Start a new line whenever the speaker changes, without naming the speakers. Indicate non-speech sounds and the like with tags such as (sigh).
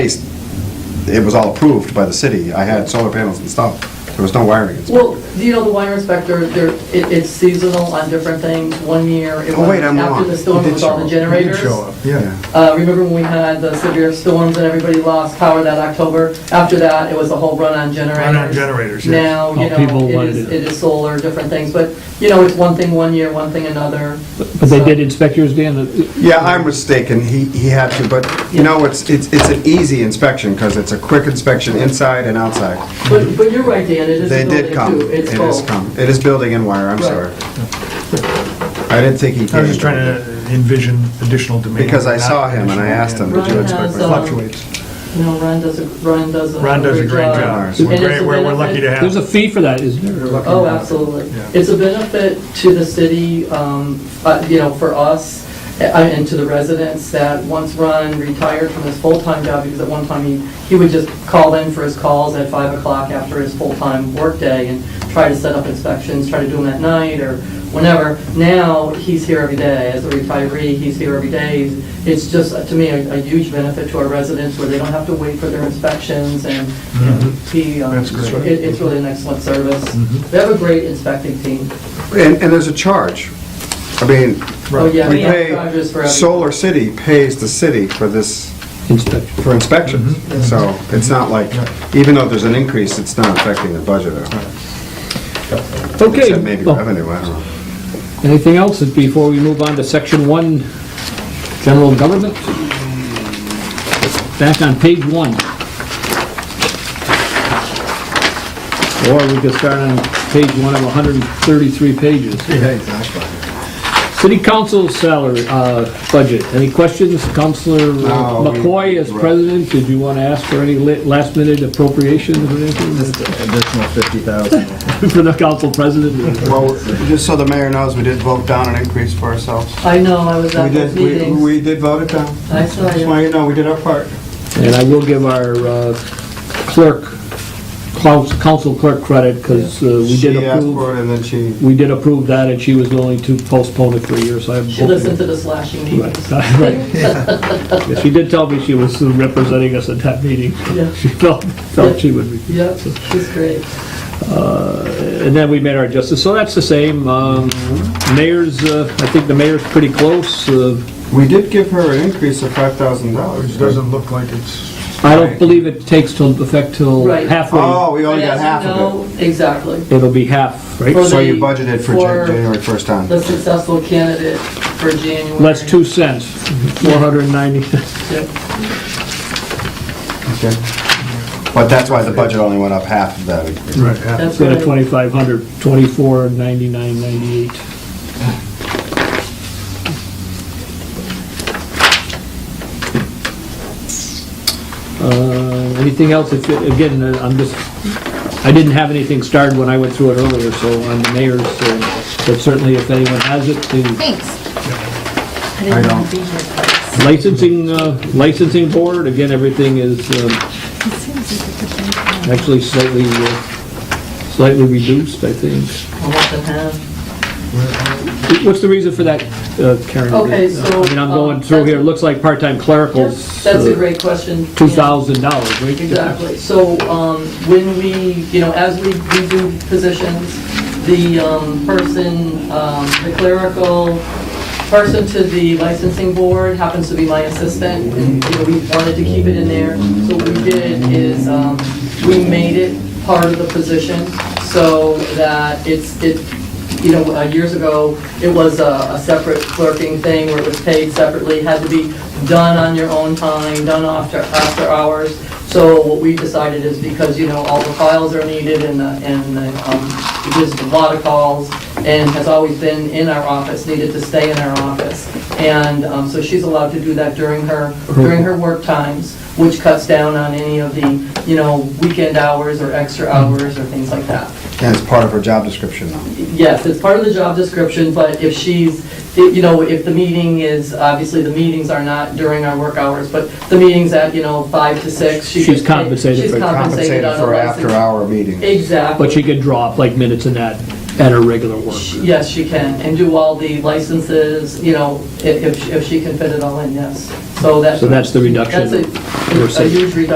it was all approved by the city. I had solar panels installed. There was no wiring
Well,
inspected.
you know, the wire inspector, there, it, it's seasonal on different things. One year, it
Oh, wait,
was
I'm wrong.
after the storm
He did
with all
show
the
up.
generators.
He did show up, yeah.
Uh, remember when we had the severe storms and everybody lost power that October? After that, it was a whole run on generators.
Run-on generators, yes.
Now,
Oh,
you
people
know, it
wanted
is,
it.
it is solar, different things, but, you know, it's one thing one year, one thing another.
But they did inspect yours, Dan?
Yeah, I'm mistaken. He, he had to, but you know, it's, it's, it's an easy inspection because it's a quick inspection inside and outside.
But, but you're right, Dan, it is
They
a building
did come.
too.
It
It's
is
both.
come. It is building and wire, I'm
Right.
sorry. I didn't think he came.
I was just trying to envision additional demand.
Because I saw him and I asked him,
did you
Ron
expect
has,
me-
um, Fluctuates.
No, Ron does a, Ron does a.
Ron does a great job.
job.
We're
And it's
great-
a
We're we're lucky
benefit-
to have.
There's a fee for that, isn't there?
We're lucky to
Oh,
have him.
absolutely.
Yeah.
It's a benefit to the city, um, uh, you know, for us uh, and to the residents that once Ron retired from his full-time job, because at one time he, he would just call in for his calls at five o'clock after his full-time workday and try to set up inspections, try to do them at night or whenever. Now, he's here every day. As a retiree, he's here every day. It's just, uh, to me, a a huge benefit to our residents where they don't have to wait for their inspections and you know, he, um,
That's great.
it- it's really an excellent service.
Mm-hmm.
They have a great inspecting team.
And, and there's a charge. I mean,
Oh, yeah,
we
we have
pay,
charges for everything.
Solar City pays the city for this,
Inspection.
for inspections. So it's not like, even though there's an increase, it's not affecting the budget at all.
Okay.
Except maybe
Oh,
revenue, I don't know.
Anything else before we move on to section one, general government? Back on page one. Or we could start on page one of 133 pages.
Yeah, exactly.
City council salary, uh, budget, any questions? Counselor
No, we-
McCoy as president, did you want to ask for any last minute appropriations or anything
additional 50,000.
(laughs) for the council president?
Well, just so the mayor knows, we did vote down an increase for ourselves.
I know, I was
We
at those
did, we-
meetings.
we did vote it down.
I saw
Just
you.
want you to know, we did our part.
And I will give our uh, clerk, clous- council clerk credit, because we did
She asked for
approve,
it and then she,
we did approve that, and she was willing to postpone it for a year, so I'm
She listened to
hoping.
the slashing
Right,
meetings.
right. She did tell me she was representing us at that
(laughs)
meeting. (laughs)
Yeah.
She felt, felt she would be.
Yep, she's great.
And then we made our adjustments, so that's the same. Um, Mayor's, uh, I think the mayor's pretty close. Uh,
we did give her an increase of five thousand dollars.
Which doesn't look like it's.
I don't believe it takes till, effect till
Right.
Oh,
halfway.
we only got half of
of it. Exactly.
It'll be half, right?
it. So you
the-
budgeted for
for-
Jan- January first time.
The successful candidate for January.
Less two cents, (laughs) 490.
Yep.
Okay. But that's why the budget only went up half of that increase.
Right, yeah.
That's
Instead of
right.
2,500, 24,99.98. Uh, Anything else? If it- Again, uh, I'm just, I didn't have anything started when I went through it earlier, so on the mayor's, uh, but certainly if anyone has it, the
Thanks. I didn't want to be here. It
licensing, uh, licensing board, again, everything is um,
seems like a good thing.
actually slightly, uh, slightly reduced, I think.
Almost in half.
What's the reason for that, uh, Karen?
Okay, so,
I mean, I'm going
um,
through here,
that's-
it looks like part-time clericals.
That's a great question.
Two
Jan.
thousand dollars, right?
Exactly. So um, when we, you know, as we we do positions, the um, person, um, the clerical person to the licensing board happens to be my assistant, and, you know, we wanted to keep it in there. So what we did is, um, we made it part of the position so that it's, it you know, uh, years ago, it was a a separate clerking thing where it was paid separately, had to be done on your own time, done uh, after, after hours. So what we decided is because, you know, all the files are needed and, the- and the, um, there's a lot of calls and has always been in our office, needed to stay in our office. And um, so she's allowed to do that during her, during her work times, which cuts down on any of the, you know, weekend hours or extra hours or things like that.
And it's part of her job description now.
Yes, it's part of the job description, but if she's, if, you know, if the meeting is, obviously, the meetings are not during our work hours, but the meeting's at, you know, five to six. she
She's
could take-
compensated
she's
for-
compensated
Compensated
on a
for
license.
after-hour meetings.
Exactly.
But she could drop like minutes in that at her regular work.
Yes, she can, and do all the licenses, you know, if, if she- if she can fit it all in, yes. So that's.
So that's the reduction
That's a-
we're
a
seeing.
huge reduction.